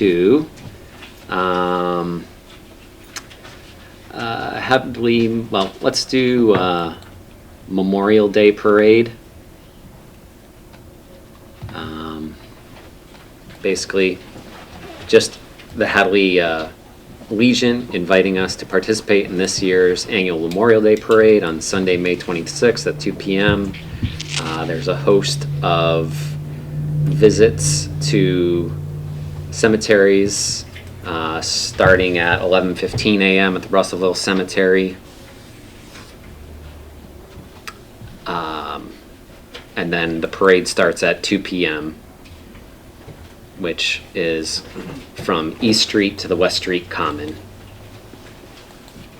to um, uh, have we, well, let's do uh, Memorial Day Parade. Um, Basically, just the Hadley uh, Legion inviting us to participate in this year's annual Memorial Day Parade on Sunday, May 26th at 2 PM. Uh, There's a host of visits to cemeteries, uh, starting at 11:15 a.m. at the Russellville Cemetery. Um, And then the parade starts at 2 p.m., which is from East Street to the West Street Common.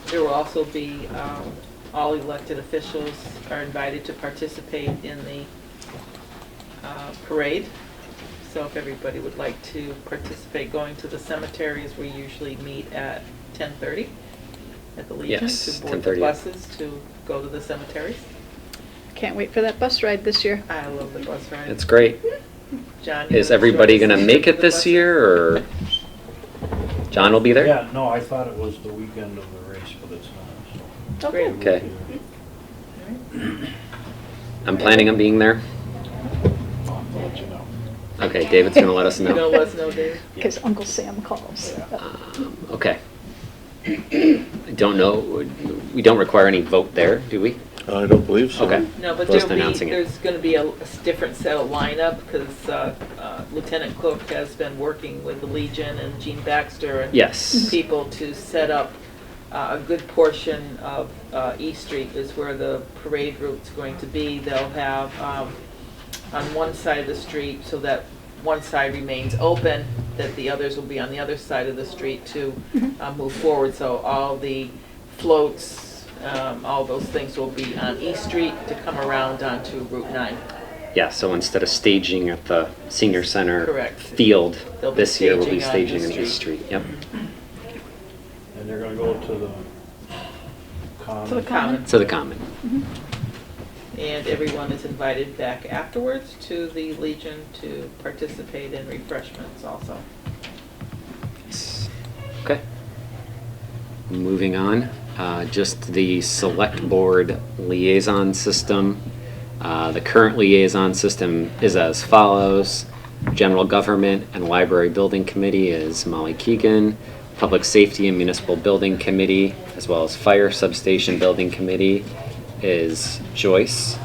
There will also be, um, all elected officials are invited to participate in the uh, parade. So if everybody would like to participate, going to the cemeteries, we usually meet at 10:30 at the Legion. Yes, To board the 10:30. buses to go to the cemeteries. Can't wait for that bus ride this year. I love the bus ride. That's great. John, you Is wanna everybody join going us to for make it the this bus- year, or John will be there? Yeah, no, I thought it was the weekend of the race, but it's not. Oh, Great. so. Okay. I'm planning on being there. I'll let you know. Okay, David's going to let us You know, know. let us know, Dave. Because Uncle Sam calls. Yeah. Um, Okay. I don't know, we don't require any vote there, do we? I don't believe so. Okay. No, but Just there'll be, announcing it. there's going to be a a different set of lineup because Lieutenant Cook has been working with the Legion and Gene Baxter and Yes. people to set up uh, a good portion of uh, E Street is where the parade route's going to be. They'll have um, on one side of the street so that one side remains open, that the others will be on the other side of the street to Mm-hmm. uh, move forward. So all the floats, um, all those things will be on E Street to come around onto Route 9. Mm-hmm. Yeah, so instead of staging at the senior center. Correct. Field, They'll be this year we'll be staging on staging the in the street. street. Yep. And they're gonna go to the To the common. common. To the common. And everyone is invited back afterwards to the Legion to participate in refreshments also. Okay. Moving on, uh, just the select board liaison system. Uh, The current liaison system is as follows. General Government and Library Building Committee is Molly Keegan. Public Safety and Municipal Building Committee, as well as Fire Substation Building Committee, is Joyce.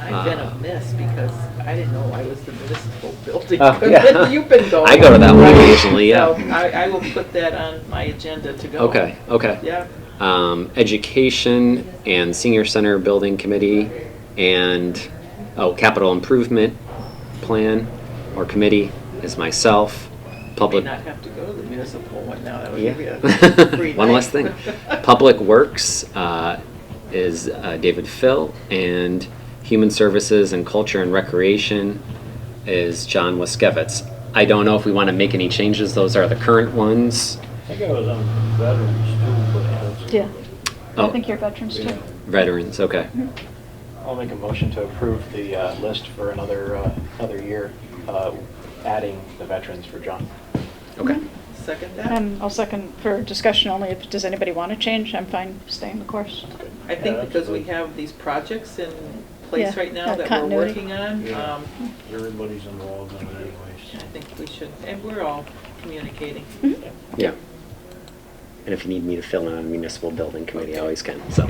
I've been Ah. amiss because I didn't know I was the municipal building. Oh, yeah. You've been going. I go to that one occasionally, yeah. So I, I will put that on my agenda to go. Okay, okay. Yeah, um, Education and Senior Center Building Committee and, oh, Capital Improvement Plan or Committee is myself. may Public, not have to go to the municipal one now, that would give you a free yeah. One less thing. night. Public Works uh, is uh, David Phil and Human Services and Culture and Recreation is John Waskevitz. I don't know if we want to make any changes. Those are the current ones. I think I was on veterans too, but that's. Yeah. I Oh. think you're veterans too. Veterans, okay. I'll make a motion to approve the uh, list for another, uh, another year, uh, adding the veterans for John. Mm-hmm. Okay. Second that. And I'll second for discussion only if, does anybody want to change? I'm fine staying the course. I think Yeah, because we absolutely. have these projects in place Yeah, right now uh, that we're continuity. working on, Yeah. um, Everybody's involved in it I anyways. think we should, and we're all communicating. Hmm? Yeah. And if you need me to fill in on municipal building committee, I always can, so.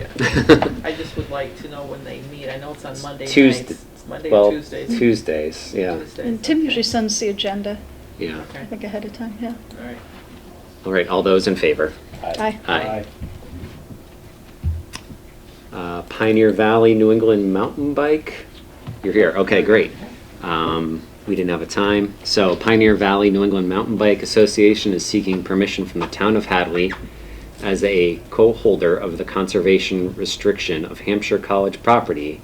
I just would like to know when they meet. I know it's on Monday nights. Tuesday- It's Monday, well, or Tuesdays. Tuesdays, yeah, Tuesdays, And Tim okay. usually sends the agenda, yeah. I Okay, think ahead of time, yeah. all right. All right, all those in favor? Aye. Aye. Uh, Pioneer Valley New England Mountain Bike. You're here. Okay, great. Um, we didn't have a time. So, Pioneer Valley New England Mountain Bike Association is seeking permission from the town of Hadley as a co holder of the conservation restriction of Hampshire College property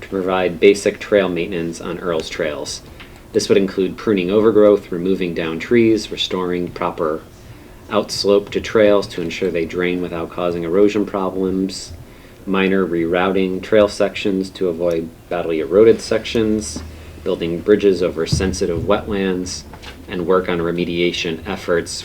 to provide basic trail maintenance on Earl's Trails. This would include pruning overgrowth, removing down trees, restoring proper outslope to trails to ensure they drain without causing erosion problems, minor rerouting trail sections to avoid badly eroded sections, building bridges over sensitive wetlands, and work on remediation efforts